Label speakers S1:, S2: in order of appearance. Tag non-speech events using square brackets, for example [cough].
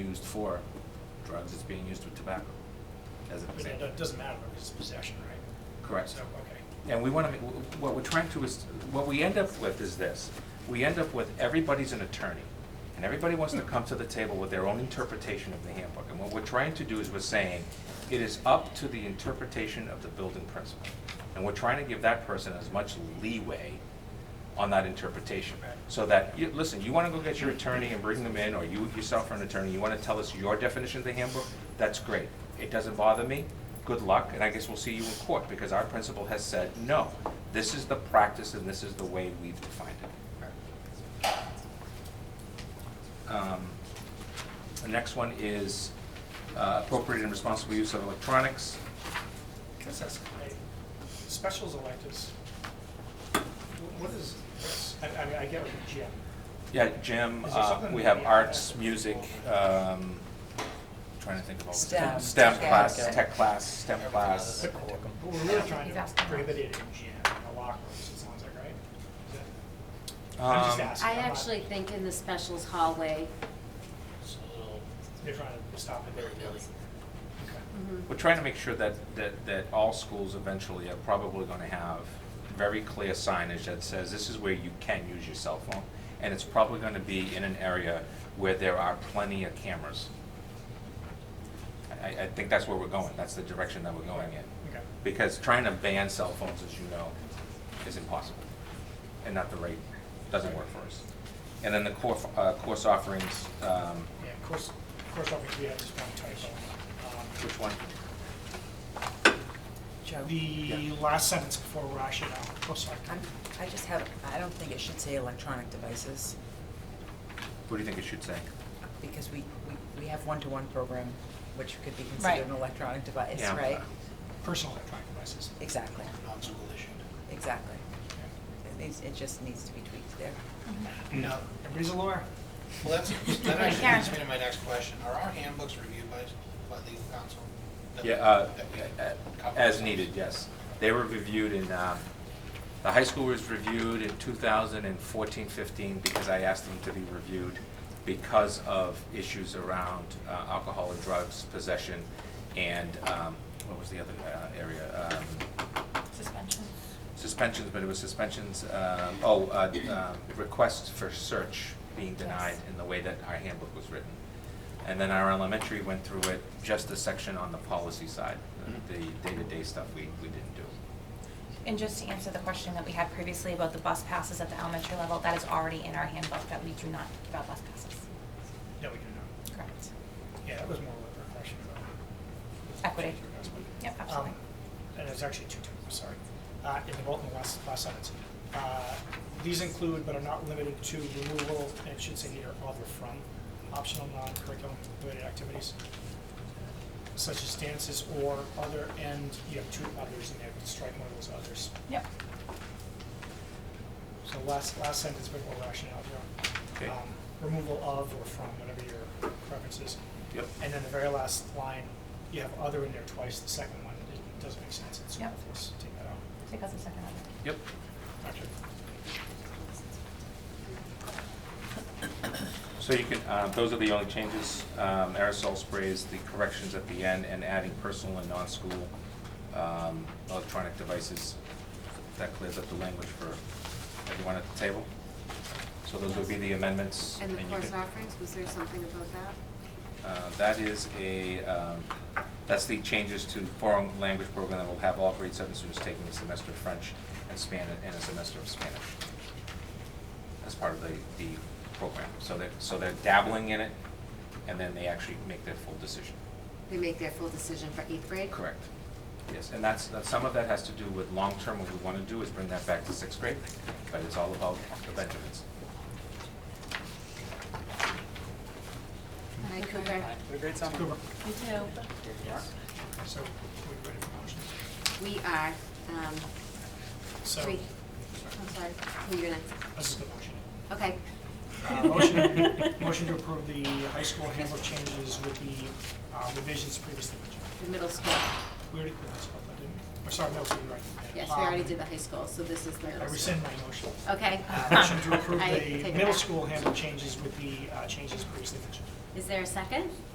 S1: used for drugs, it's being used with tobacco, as an
S2: I mean,
S1: example.
S2: it doesn't matter if it's possession, right?
S1: Correct.
S2: So, okay.
S1: And we want to, what we're trying to is, what we end up with is this. We end up with everybody's an attorney, and everybody wants to come to the table with their own interpretation of the handbook. And what we're trying to do is we're saying, it is up to the interpretation of the building principal. And we're trying to give that person as much leeway on that interpretation. So that, you, listen, you want to go get your attorney and bring them in, or you yourself are an attorney, you want to tell us your definition of the handbook, that's great. It doesn't bother me, good luck, and I guess we'll see you in court, because our principal has said, no, this is the practice and this is the way we've defined it. Um, The next one is uh, appropriate and responsible use of electronics.
S2: Guess that's great. Specials electives. Wh- What is this? I, I mean, I get it, Jim.
S1: Yeah, gym,
S2: Is there
S1: uh,
S2: something
S1: we
S2: we
S1: have
S2: need to
S1: arts,
S2: add?
S1: music, um, trying to think of all the.
S3: STEM.
S1: STEM
S3: Yeah,
S1: class,
S3: okay.
S1: tech class, STEM class.
S2: But but we're really trying to
S4: Exactly.
S2: prohibit it in gym, in the locker rooms, it sounds like, right? Is that- I'm just
S1: Um,
S2: asking.
S4: I
S2: I'm not-
S4: actually think in the specials hallway,
S5: It's a little
S2: They're trying to stop it there.
S5: willy-nilly.
S2: Okay.
S4: mhm,
S1: We're trying to make sure that, that, that all schools eventually are probably gonna have very clear signage that says this is where you can use your cell phone. And it's probably gonna be in an area where there are plenty of cameras. I, I think that's where we're going, that's the direction that we're going in.
S2: Okay.
S1: Because trying to ban cell phones, as you know, is impossible, and not the rate, doesn't work for us. And then the core, uh, course offerings, um,
S2: Yeah, of course, of course, obviously, we have this one typo. Um,
S1: which one?
S3: Joe,
S2: The
S1: Yeah.
S2: last sentence before we're actually out, oh, sorry.
S3: I'm, I just have, I don't think it should say electronic devices,
S1: What do you think it should say?
S3: because we, we, we have one-to-one program, which could be
S6: Right.
S3: considered an electronic device,
S1: Yeah.
S3: right?
S2: Personal electronic devices.
S3: Exactly,
S5: Non-school issued.
S3: exactly.
S2: Yeah.
S3: It needs, it just needs to be tweaked there.
S2: No, everybody's a lawyer.
S5: Well, that's, that actually
S4: Karen.
S5: leads me to my next question. Are our handbooks reviewed by, by legal counsel? That-
S1: Yeah, uh,
S5: that we-
S1: uh, as needed, yes. They were reviewed in, uh, the high school was reviewed in 2014, 15, because I asked them to be reviewed because of issues around uh, alcohol and drugs possession, and, um, what was the other uh, area? Um,
S6: Suspension.
S1: suspensions, but it was suspensions, um, oh, uh, um, requests for search being denied
S6: Yes.
S1: in the way that our handbook was written. And then our elementary went through it, just the section on the policy side, the the day-to-day stuff we, we didn't do.
S6: And just to answer the question that we had previously about the bus passes at the elementary level, that is already in our handbook that we do not talk about bus passes.
S2: No, we do not.
S6: Correct.
S2: Yeah, that was more of a question about.
S6: Equity.
S2: That's what-
S6: Yep, absolutely.
S2: Um, And there's actually two, terms, I'm sorry. Uh, In the vote in the last, last sentence. Uh, These include but are not limited to removal, and it should say near other from, optional non-curriculum related activities, such as dances or other, and you have two others in there, strike one of those others.
S6: Yep.
S2: So last, last sentence before rationale,
S1: Okay.
S2: Joe. Um, Removal of or from, whatever your preference is.
S1: Yep.
S2: And then the very last line, you have other in there twice, the second one, it doesn't make sense, it's
S6: Yep.
S2: superfluous, take that out.
S6: Because of second level.
S1: Yep.
S2: Gotcha.
S1: So you can, uh, those are the only changes, um, aerosol sprays, the corrections at the end, and adding personal and non-school um, electronic devices. That clears up the language for everyone at the table. So those would be the amendments.
S4: and the
S1: you
S4: course
S1: can-
S4: offerings, was there something about that?
S1: Uh, That is a, um, that's the changes to foreign language program that will have all grade seven students taking a semester of French and Spanish, and a semester of Spanish as part of the, the program. So they're, so they're dabbling in it, and then they actually make their full decision.
S4: They make their full decision for eighth grade?
S1: Correct. Yes, and that's, that- some of that has to do with long-term, what we want to do is bring that back to sixth grade, but it's all about the Benjamins.
S4: Hi, Cooper.
S2: Cooper,
S4: You too.
S2: so, we ready for motions?
S4: We are, um,
S2: So,
S4: Three. I'm sorry, who you're next?
S2: this is the motion.
S4: Okay.
S2: Uh,
S4: [laughs]
S2: Motion, [laughs] motion to approve the high school handbook changes with the uh, revisions previously mentioned.
S4: The middle school.
S2: We already put this up, didn't we? I'm sorry, middle school, you're right.
S4: Yes, we already did the high school, so this is
S2: Um,
S4: the
S2: I
S4: middle school.
S2: rescind my motion. Uh,
S4: Okay.
S2: Motion
S4: [laughs]
S2: to approve
S4: I take it
S2: the middle
S4: back.
S2: school handbook changes with the uh, changes previously mentioned.
S4: Is there a second?